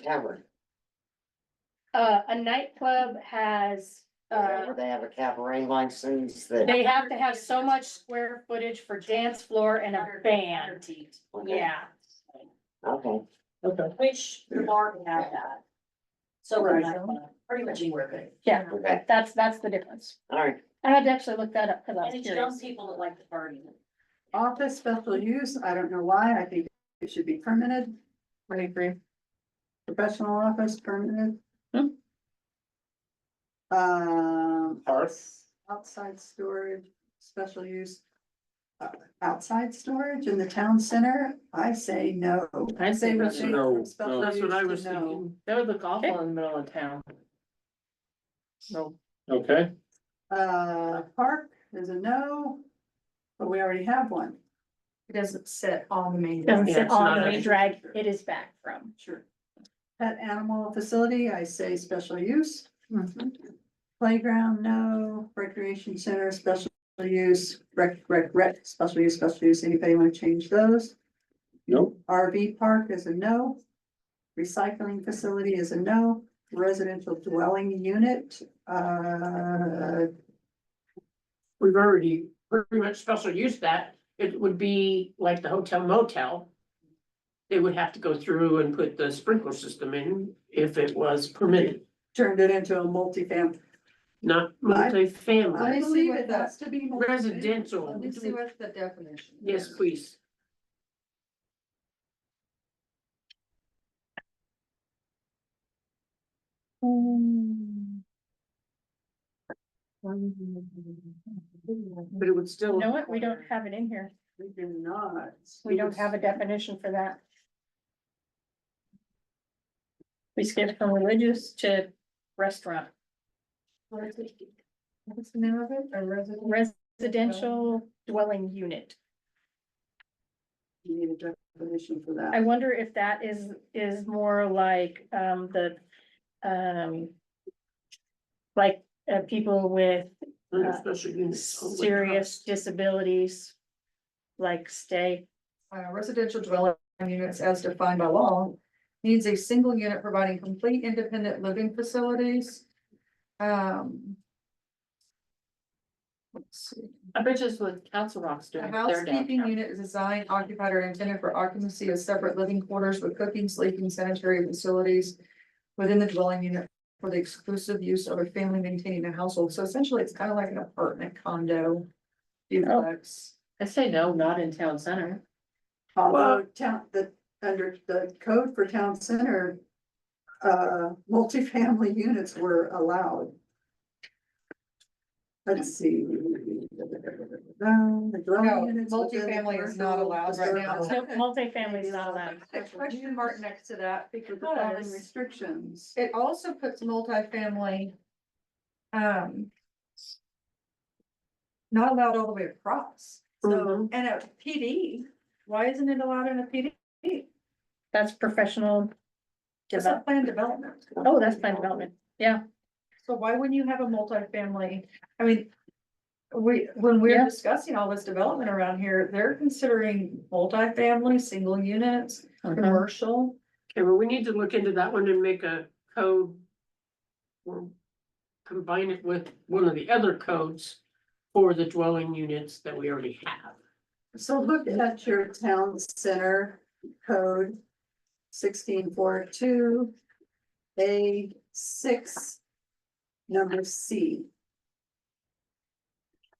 tavern. Uh, a nightclub has, uh, Where They have a cabaret license that. they have to have so much square footage for dance floor and a band. Yeah. Okay, Okay. Which Martin had that. So we're not, pretty much anywhere good. Yeah, okay, that's, that's the difference. all right. I had to actually look that up because I And was it's young curious. people that like the party. Office special use, I don't know why, I think it should be permitted, I agree. professional office permitted. Hmm. Um, Parks. outside storage, special use. uh, Outside storage in the town center, I say no. I'd say we that's change no, from special no. That's what I use to was no. thinking. That would look awful in the middle of town. No, Okay, Uh, park is a no, but we already have one. It doesn't sit on the main. Doesn't Yeah, sit it's on not the a- drag it is back from. Sure. Pet animal facility, I say special use. Mm-hmm. Playground, no, recreation center, special use, rec, rec, rec, special use, special use, anybody wanna change those? nope, RV park is a no. Recycling facility is a no, residential dwelling unit, uh, we've already pretty much special use that. It would be like the hotel motel. They would have to go through and put the sprinkler system in if it was permitted, turned it into a multifamily. not I multifamily. believe it has to be. multifamily. Residential. Let me see what's the definition. Yes, please. But it would still. You know what? We don't have it in here. We do not. We don't have a definition for that. We skipped from religious to restaurant. What's the name of it? A resident? Residential dwelling unit. We need a definition for I that. wonder if that is, is more like, um, the, um. Like, uh, people with Under special units. oh my serious gosh. disabilities. Like stay, Uh, residential dwelling units as defined by law needs a single unit providing complete independent living facilities. Um. Let's see. I bet you that's what Council Rock's A doing. They're housekeeping downtown. unit is designed, occupied or intended for occupancy of separate living quarters with cooking, sleeping, sanitary facilities. Within the dwelling unit for the exclusive use of a family maintaining a household, so essentially it's kind of like an apartment condo. Duplex, I say no, not in town center. Although town, the, under the code for town center, uh, multifamily units were allowed. Let's see. Um, the No, dwelling units within the multifamily is not commercial allowed right now. facility. no, multifamily is not allowed. a question mark next to that Because of the following because restrictions. it also puts multifamily. Um. Not allowed all the way across, so, Mm-hmm. Mhm. and a PD, why isn't it allowed in a PD? That's professional. It's a planned development. Oh, that's planned development. So why wouldn't you have a multifamily? I mean. We, when we're Yeah. discussing all this development around here, they're considering multifamily, single units, commercial. Okay, well, we need to look into that one and make a code. Or combine it with one of the other codes for the dwelling units that we already have. So look at your town center code sixteen four two A six, number C.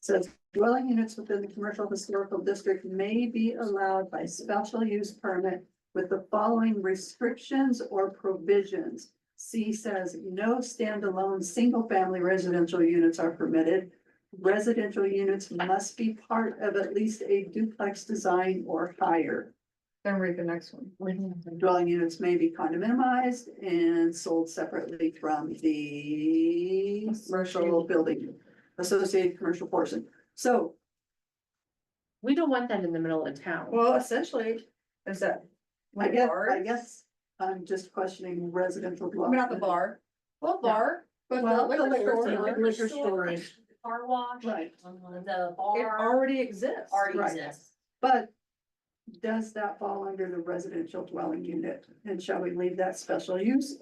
Says dwelling units within the commercial historical district may be allowed by special use permit with the following restrictions or provisions. C says no standalone, single-family residential units are permitted. Residential units must be part of at least a duplex design or higher. Then read the next one. Dwelling units may be condominiumized and sold separately from the commercial building, associated commercial portion. So, We don't want that in the middle of town. Well, essentially, is that. I like guess, bars? I guess I'm just questioning residential I dwelling. mean, Not the bar. Well, bar, but the Well, the liquor liquor store, store. it Liquor storage, Car wash, Right, the bar already exists. already Right. exists. but does that fall under the residential dwelling unit? And shall we leave that special use